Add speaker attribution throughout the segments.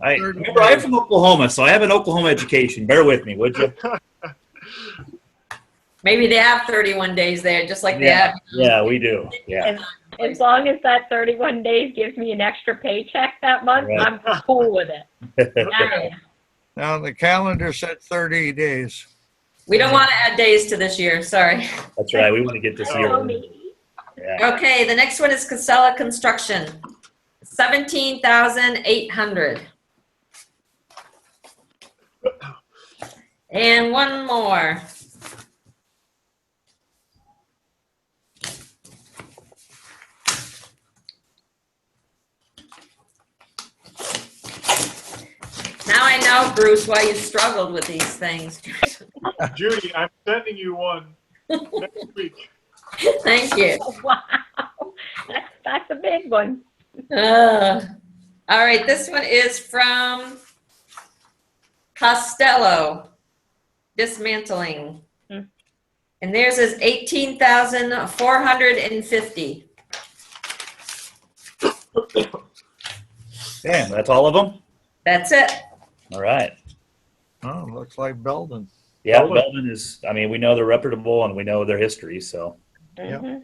Speaker 1: I remember I'm from Oklahoma, so I have an Oklahoma education. Bear with me, would you?
Speaker 2: Maybe they have 31 days there, just like they
Speaker 1: Yeah,
Speaker 2: have.
Speaker 1: yeah, we do. Yeah.
Speaker 3: As long as that thirty-one days gives me an extra paycheck that month,
Speaker 1: Right.
Speaker 3: I'm cool with it.
Speaker 2: Yeah.
Speaker 4: Now, the calendar said 30 days.
Speaker 2: We don't want to add days to this year, sorry.
Speaker 1: That's right. We want to get this
Speaker 3: Tell
Speaker 1: year.
Speaker 3: Oh, me.
Speaker 1: Yeah.
Speaker 2: Okay, the next one is Casella Construction, 17,800. And one more. Now I know, Bruce, why you struggled with these things.
Speaker 5: Judy, I'm sending you one next week.
Speaker 2: Thank you.
Speaker 3: Wow, that's, that's a big one.
Speaker 2: Ugh. All right, this one is from Costello Dismantling.
Speaker 3: Hmm.
Speaker 2: And theirs is eighteen thousand four hundred and fifty.
Speaker 1: Damn, that's all of them?
Speaker 2: That's it.
Speaker 1: All right.
Speaker 4: Oh, looks like Belden.
Speaker 1: Yeah,
Speaker 5: Belvin.
Speaker 1: Belvin is, I mean, we know they're reputable and we know their history, so.
Speaker 4: Yep.
Speaker 3: Mhm.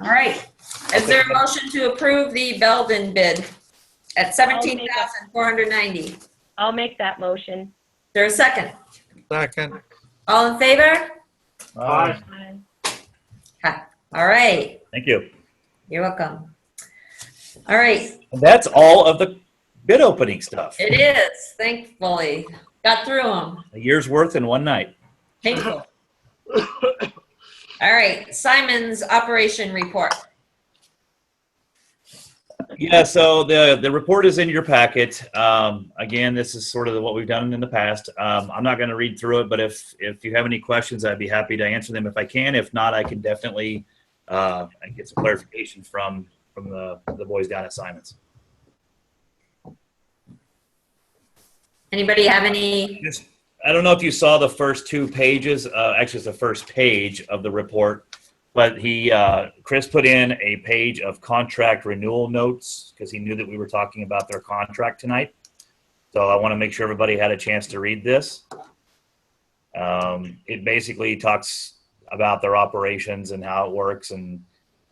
Speaker 2: All right. Is there a motion to approve the Belvin bid at seventeen thousand four hundred ninety? Is
Speaker 3: I'll make that motion.
Speaker 2: there a second?
Speaker 4: Second.
Speaker 2: All in favor?
Speaker 5: Bye.
Speaker 2: All right,
Speaker 1: uh, Thank you.
Speaker 2: you're welcome. All right,
Speaker 1: And that's all of the bid opening stuff.
Speaker 2: it is, thankfully. Got through them.
Speaker 1: A year's worth in one night.
Speaker 2: Painful. All right, Simon's operation report.
Speaker 1: Yeah, so the, the report is in your packet. Um, again, this is sort of what we've done in the past. Um, I'm not going to read through it, but if, if you have any questions, I'd be happy to answer them if I can. If not, I can definitely uh, get some clarification from, from the, the boys down at Simon's.
Speaker 2: Anybody have any?
Speaker 1: Yes. I don't know if you saw the first two pages, uh, actually it's the first page of the report, but he, uh, Chris put in a page of contract renewal notes because he knew that we were talking about their contract tonight. So I want to make sure everybody had a chance to read this. Um, it basically talks about their operations and how it works and,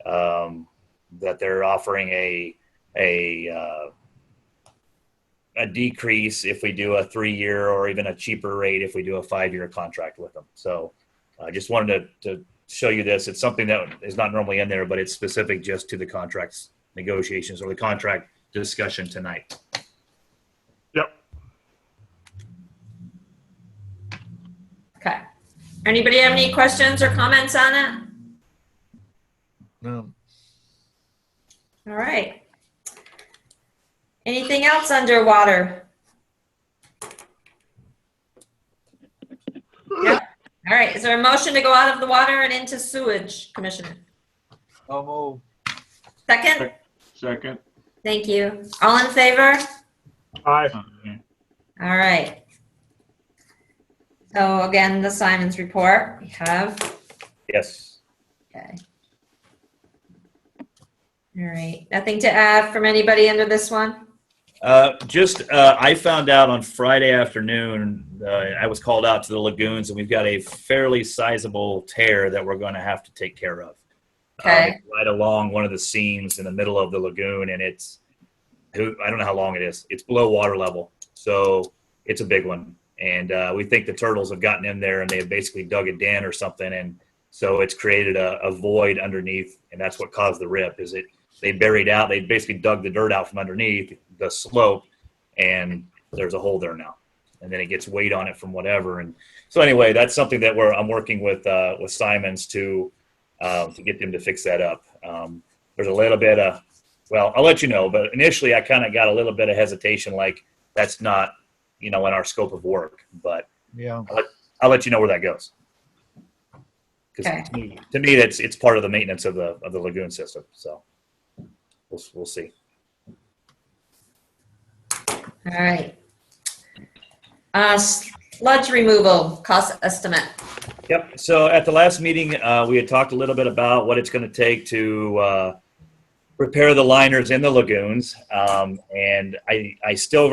Speaker 1: um, that they're offering a, a, uh, a decrease if we do a three year or even a cheaper rate if we do a five year contract with them. So I just wanted to, to show you this. It's something that is not normally in there, but it's specific just to the contracts negotiations or the contract discussion tonight.
Speaker 5: Yep.
Speaker 2: Okay. Anybody have any questions or comments on it?
Speaker 4: No.
Speaker 2: All right. Anything else underwater? Yeah. All right, is there a motion to go out of the water and into sewage, Commissioner?
Speaker 4: So moved.
Speaker 2: Second?
Speaker 6: Second.
Speaker 2: Thank you. All in favor?
Speaker 5: Bye.
Speaker 2: All right. So again, the Simon's report, we have,
Speaker 1: Yes.
Speaker 2: okay. All right, nothing to add from anybody under this one?
Speaker 1: Uh, just uh, I found out on Friday afternoon, uh, I was called out to the lagoons, and we've got a fairly sizable tear that we're going to have to take care of.
Speaker 2: Okay.
Speaker 1: Um, right along one of the seams in the middle of the lagoon, and it's who I don't know how long it is. It's below water level, so it's a big one. And uh, we think the turtles have gotten in there, and they have basically dug a den or something, and so it's created a, a void underneath, and that's what caused the rip. Is it they buried out. They basically dug the dirt out from underneath the slope, and there's a hole there now. And then it gets weight on it from whatever. And so anyway, that's something that we're I'm working with uh, with Simons to um, to get them to fix that up. Um, there's a little bit of well, I'll let you know. But initially, I kind of got a little bit of hesitation, like that's not you know in our scope of work. But
Speaker 4: Yeah.
Speaker 1: I'll let you know where that goes. 'Cause
Speaker 2: Okay.
Speaker 1: to me- to me, that's it's part of the maintenance of the of the lagoon system. So we'll we'll see.
Speaker 2: All right. Uh, sludge removal cost estimate.
Speaker 1: Yep. So at the last meeting, uh, we had talked a little bit about what it's going to take to uh, repair the liners in the lagoons, um, and I I still